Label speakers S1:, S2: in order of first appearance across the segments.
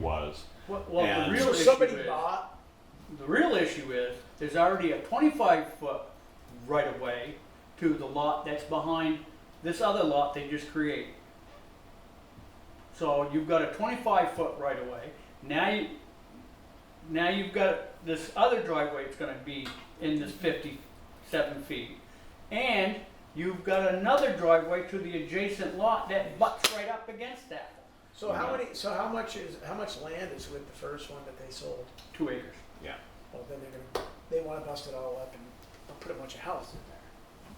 S1: was.
S2: Well, well the
S1: And-
S2: real
S3: So
S2: issue
S3: somebody
S2: is,
S3: bought,
S2: the real issue is, there's already a twenty-five foot right of way to the lot that's behind this other lot they just created. So you've got a twenty-five foot right of way, now you, now you've got this other driveway that's gonna be in this fifty-seven feet. And you've got another driveway to the adjacent lot that butts right up against that,
S3: so how
S2: Mm-hmm.
S1: Yeah.
S3: many, so how much is, how much land is with the first one that they sold?
S2: two acres.
S3: Well, then they're gonna, they wanna bust it all up and put a bunch of houses in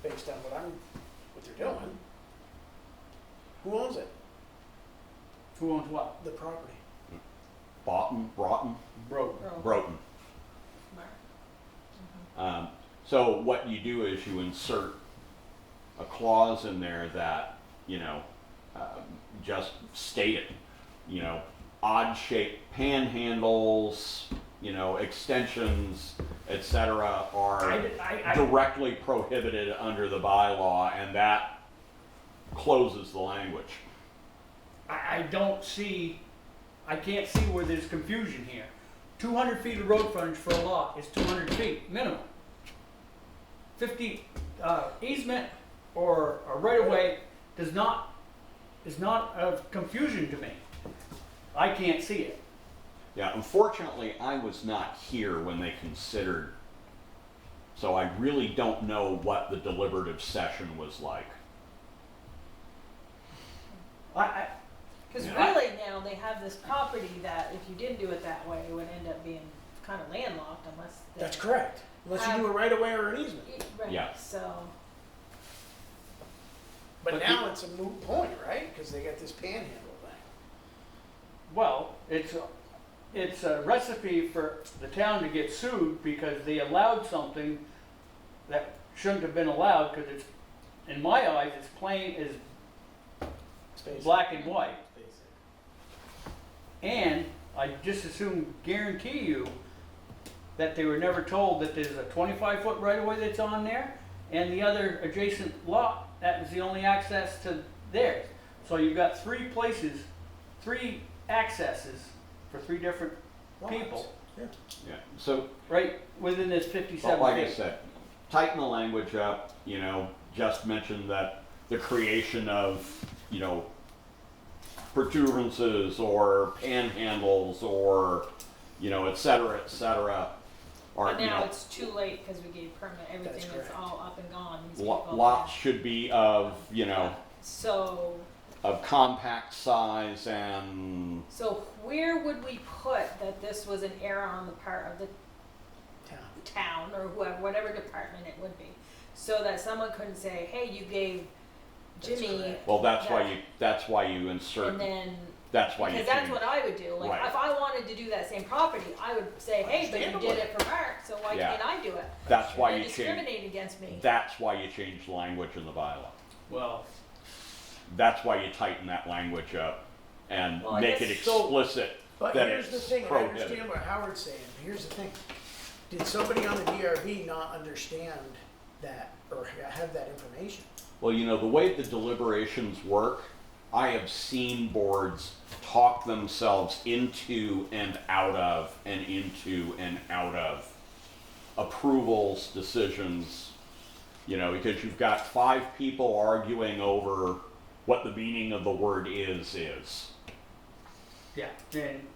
S3: there, based on what I'm, what they're doing. Who owns it?
S2: Who owns what?
S3: The property.
S1: Boughton, Broughton,
S2: Broke.
S1: Broughton. Um, so what you do is you insert a clause in there that, you know, um, just state it, you know, odd shaped panhandles, you know, extensions, etc.
S2: I,
S1: are
S2: did- I, I,
S1: directly prohibited under the bylaw and that closes the language.
S2: I I don't see, I can't see where there's confusion here. Two hundred feet of road frontage for a lot is two hundred feet minimum. Fifty, uh, easement or a right of way does not, is not of confusion to me. I can't see it.
S1: Yeah, unfortunately, I was not here when they considered, so I really don't know what the deliberative session was like.
S2: I, I,
S4: Because
S1: Yeah.
S4: really now they have this property that if you didn't do it that way, it would end up being kind of landlocked unless. they-
S3: That's correct, unless you do a right of way or an easement.
S4: Y- Right.
S1: Yeah.
S4: So
S3: But
S2: But
S3: now it's a moot point, right? Because they got this panhandle thing.
S2: Well, it's, a- it's a recipe for the town to get sued because they allowed something that shouldn't have been allowed because it's, in my eyes, it's plain as
S3: Space.
S2: black and white.
S3: Space.
S2: And I just assume, guarantee you, that they were never told that there's a twenty-five foot right of way that's on there and the other adjacent lot, that was the only access to theirs. So you've got three places, three accesses for three different people.
S3: Yeah.
S1: Yeah, so,
S2: right within this
S1: but
S2: fifty-seven
S1: like I
S2: days.
S1: said, tighten the language up, you know, just mention that the creation of, you know, protuberances or panhandles or, you know, et cetera, et cetera, or,
S4: but
S1: you
S4: now
S1: know,
S4: it's too late because we gave permit. Everything is
S3: correct.
S4: all up and gone. These
S1: lo-
S4: people-
S1: lots should be of, you know,
S4: So
S1: of compact size and
S4: so where would we put that this was an error on the part of the
S3: Town.
S4: town or whoever, whatever department it would be, so that someone couldn't say, hey, you gave
S3: That's
S4: Jimmy.
S3: correct.
S1: Well, that's why
S4: that,"
S1: you, that's why you insert,
S4: And then
S1: that's why you
S4: Because that's
S1: change-
S4: what I would do, like,
S1: Right.
S4: if I wanted to do that same property, I would say, hey, but you
S3: Understandably.
S4: did it for Mark, so why
S1: Yeah.
S4: can't I do it?
S1: that's why you
S4: They
S1: change,
S4: discriminate against me.
S1: that's why you change language in the bylaw.
S2: Well,
S1: That's why you tighten that language up and
S4: Well, I
S1: make it
S4: guess-
S1: explicit
S3: But
S1: that
S3: here's the
S1: it's
S3: thing, and I
S1: prohibited.
S3: understand what Howard's saying, but here's the thing. Did somebody on the DRV not understand that or ha- have that information?
S1: Well, you know, the way the deliberations work, I have seen boards talk themselves into and out of and into and out of approvals, decisions, you know, because you've got five people arguing over what the meaning of the word is, is.
S2: yeah, then,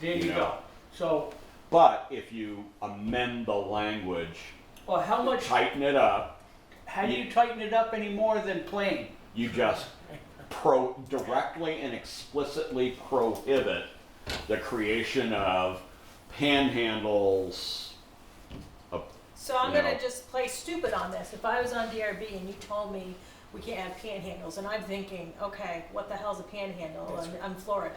S2: there
S1: You
S2: you go.
S1: know.
S2: So,
S1: But if you amend the language,
S2: well, how much,
S1: tighten it up,
S2: how do you tighten it up any more than plain?
S1: you just pro, directly and explicitly prohibit the creation of panhandles.
S4: So I'm
S1: you
S4: gonna
S1: know.
S4: just play stupid on this, if I was on DRB and you told me we can't have panhandles, and I'm thinking, okay, what the hell's a panhandle,
S3: That's
S4: and I'm Florida.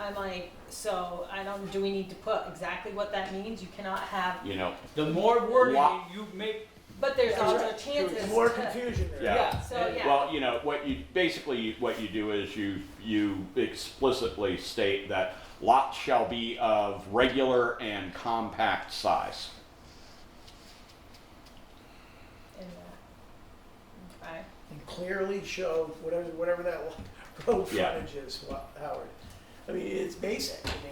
S4: I'm like, so, I don't, do we need to put exactly what that means, you cannot have,
S1: You know,
S2: The more wording
S1: Wow.
S2: you make,
S4: but there's
S3: That's
S4: also
S3: right.
S4: chances
S3: There's More
S4: to-
S3: confusion there.
S1: Yeah.
S2: yeah.
S4: So,
S2: and-
S4: yeah.
S1: well, you know what you basically what you do is you you explicitly state that lots shall be of regular and compact size.
S4: in that. Okay,
S3: And clearly show whatever, whatever that lo- road
S1: Yeah.
S3: frontage is, Wa- Howard. I mean, it's basic. I mean,